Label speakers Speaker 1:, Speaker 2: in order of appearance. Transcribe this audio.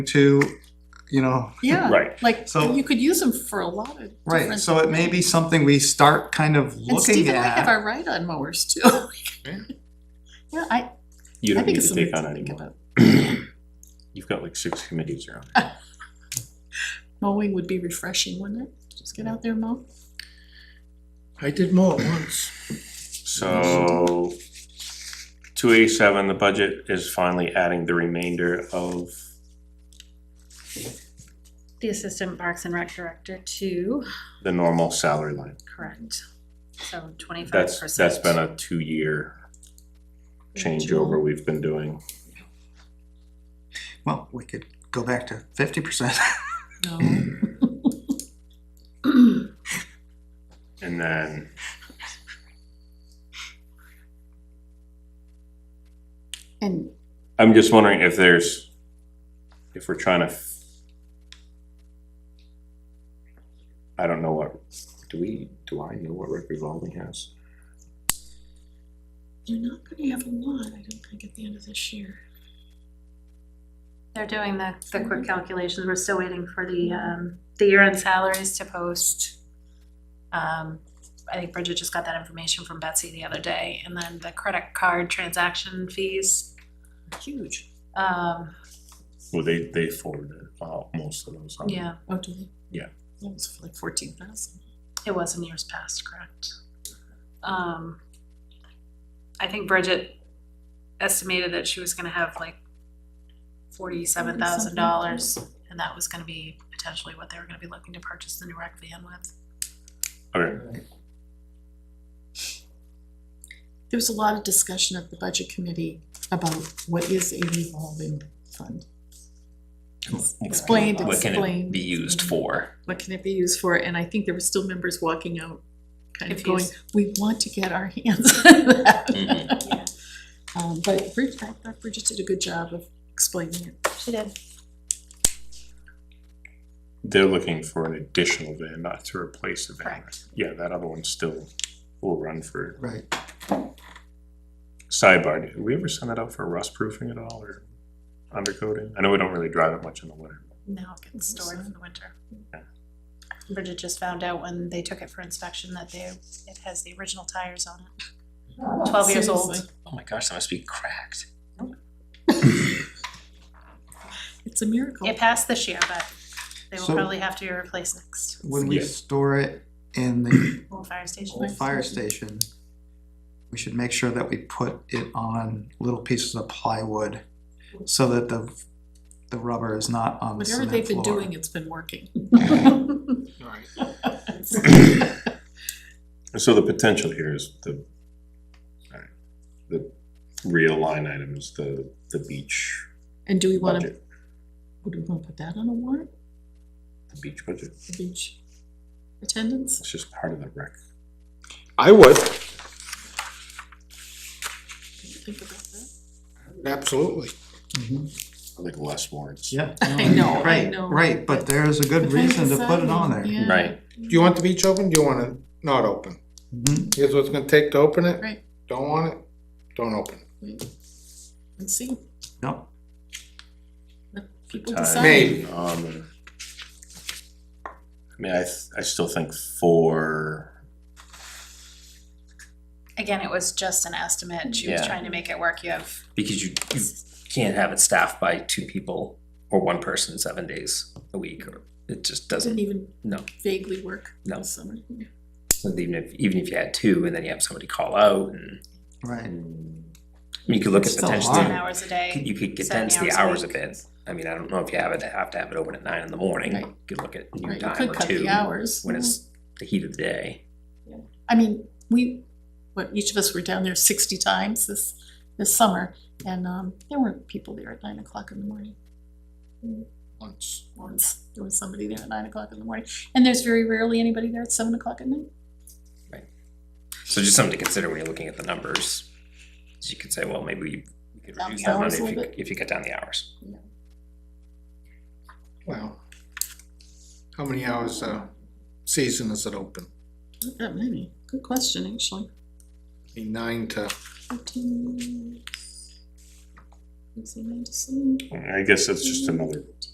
Speaker 1: to, you know,
Speaker 2: Yeah,
Speaker 3: Right,
Speaker 2: like,
Speaker 1: So-
Speaker 2: you could use them for a lot of
Speaker 1: right,
Speaker 2: different.
Speaker 1: so it may be something we start kind of
Speaker 2: And Steve
Speaker 1: looking
Speaker 2: and I have
Speaker 1: at.
Speaker 2: our ride-on mowers too. Yeah, I,
Speaker 3: you
Speaker 2: I
Speaker 3: don't
Speaker 2: think
Speaker 3: need
Speaker 2: it's
Speaker 3: to
Speaker 2: something
Speaker 3: take on
Speaker 2: to think
Speaker 3: anymore.
Speaker 2: about.
Speaker 3: You've got like six committees around.
Speaker 2: Mowing would be refreshing, wouldn't it? Just get out there and mow.
Speaker 4: I did mow it once.
Speaker 3: So two eighty-seven, the budget is finally adding the remainder of,
Speaker 5: The Assistant Parks and Rec Director to,
Speaker 3: the normal salary line.
Speaker 5: correct, so twenty-five percent.
Speaker 3: That's, that's been a two-year changeover we've been doing.
Speaker 1: Well, we could go back to fifty percent.
Speaker 2: No,
Speaker 3: And then
Speaker 2: and
Speaker 3: I'm just wondering if there's, if we're trying to. f- I don't know what, do we, do I know what rec revolving has?
Speaker 2: you're not gonna have a lot, I don't think, at the end of this year.
Speaker 5: They're doing the, Mhm. the quick calculations, we're still waiting for the, um, the year-end salaries to post. Um, I think Bridget just got that information from Betsy the other day, and then the credit card transaction fees,
Speaker 2: Huge.
Speaker 5: um,
Speaker 3: Well, they, they forwarded uh, most of those on.
Speaker 5: yeah,
Speaker 2: Oh, do they?
Speaker 3: Yeah.
Speaker 2: That was like fourteen thousand.
Speaker 5: it was in years past, correct? Um, I think Bridget estimated that she was gonna have like forty-seven thousand dollars, and that was gonna be potentially what they were gonna be looking to purchase the new rec van with.
Speaker 3: Okay,
Speaker 2: There was a lot of discussion at the budget committee about what is a revolving fund. Explained,
Speaker 6: What can it
Speaker 2: explained.
Speaker 6: be used for?
Speaker 2: What can it be used for? And I think there were still members walking out, kind of going,
Speaker 5: Confused.
Speaker 2: we want to get our hands on that.
Speaker 6: Mhm.
Speaker 5: Yeah.
Speaker 2: Um, but Bridget, I thought Bridget did a good job of explaining it.
Speaker 5: She did.
Speaker 3: They're looking for an additional van, not to replace the van.
Speaker 5: Correct.
Speaker 3: Yeah, that other one still will run for
Speaker 1: Right.
Speaker 3: sidebar. Did we ever send that out for rust proofing at all or undercoating? I know we don't really drive it much in the winter.
Speaker 5: Now it gets stored in the winter. Bridget just found out when they took it for inspection that they, it has the original tires on it. Twelve years old.
Speaker 2: Seriously,
Speaker 6: Oh my gosh, that must be cracked.
Speaker 2: It's a miracle.
Speaker 5: It passed this year, but they will
Speaker 1: So-
Speaker 5: probably have to be replaced next,
Speaker 1: When we
Speaker 3: Yeah.
Speaker 1: store it in the
Speaker 5: old fire station.
Speaker 1: old fire station, we should make sure that we put it on little pieces of plywood so that the, the rubber is not on the
Speaker 2: Whatever
Speaker 1: cement
Speaker 2: they've been
Speaker 1: floor.
Speaker 2: doing, it's been working.
Speaker 4: Alright.
Speaker 3: So the potential here is the, alright, the real line item is the, the beach
Speaker 2: And do we wanna, do
Speaker 3: budget,
Speaker 2: we wanna put that on a warrant,
Speaker 3: the beach budget.
Speaker 2: the beach attendance?
Speaker 3: It's just part of the rec.
Speaker 4: I would,
Speaker 2: Think about that.
Speaker 4: absolutely.
Speaker 1: Mhm.
Speaker 3: I think less warrants.
Speaker 1: Yeah.
Speaker 2: I know, I
Speaker 1: Right,
Speaker 2: know,
Speaker 1: right, but there's a good
Speaker 2: But then
Speaker 1: reason to put it on there.
Speaker 2: deciding, yeah.
Speaker 6: Right.
Speaker 4: Do you want the beach open? Do you want it not open?
Speaker 1: Mhm.
Speaker 4: Here's what it's gonna take to open it.
Speaker 2: Right.
Speaker 4: Don't want it, don't open it.
Speaker 2: Wait, And see,
Speaker 1: Yep,
Speaker 2: let people
Speaker 3: Time.
Speaker 2: decide.
Speaker 4: Maybe.
Speaker 3: Um, I mean, I, th- I still think four,
Speaker 5: Again, it was just an estimate. She was
Speaker 6: Yeah.
Speaker 5: trying to make it work. You have,
Speaker 6: Because you, you can't have it staffed by two people or one person seven days a week or it just
Speaker 2: Doesn't
Speaker 6: doesn't,
Speaker 2: even
Speaker 6: no.
Speaker 2: vaguely work
Speaker 6: No.
Speaker 2: this summer.
Speaker 6: So Even if, even if you had two and then you have somebody call out and,
Speaker 1: right.
Speaker 6: I mean, you could look at
Speaker 1: It's still
Speaker 6: potentially,
Speaker 5: ten
Speaker 1: hard.
Speaker 5: hours a day.
Speaker 6: you could
Speaker 5: Seven
Speaker 6: condense the
Speaker 5: hours
Speaker 6: hours
Speaker 5: a
Speaker 6: a
Speaker 5: week.
Speaker 6: bit. I mean, I don't know if you have it, have to have it open at nine in the morning,
Speaker 2: Right.
Speaker 6: you could look at
Speaker 2: Right,
Speaker 6: new
Speaker 2: you
Speaker 6: time
Speaker 2: could
Speaker 6: or
Speaker 2: cut the
Speaker 6: two
Speaker 2: hours.
Speaker 6: when it's the heat of the day.
Speaker 2: I mean, we, what, each of us were down there sixty times this, this summer, and, um, there were people there at nine o'clock in the morning.
Speaker 4: Once.
Speaker 2: Once, there was somebody there at nine o'clock in the morning, and there's very rarely anybody there at seven o'clock at night.
Speaker 6: So just something to consider when you're looking at the numbers. So you could say, well, maybe you you could
Speaker 2: Down
Speaker 6: reduce
Speaker 2: the
Speaker 6: that
Speaker 2: hours
Speaker 6: money
Speaker 2: a
Speaker 6: if
Speaker 2: little
Speaker 6: you,
Speaker 2: bit.
Speaker 6: if you cut down the hours.
Speaker 4: Well, how many hours a season is it open?
Speaker 2: Not that many, good question, actually.
Speaker 4: Be Nine to,
Speaker 2: Fifteen. Let's see, nine to seven.
Speaker 3: I guess that's just another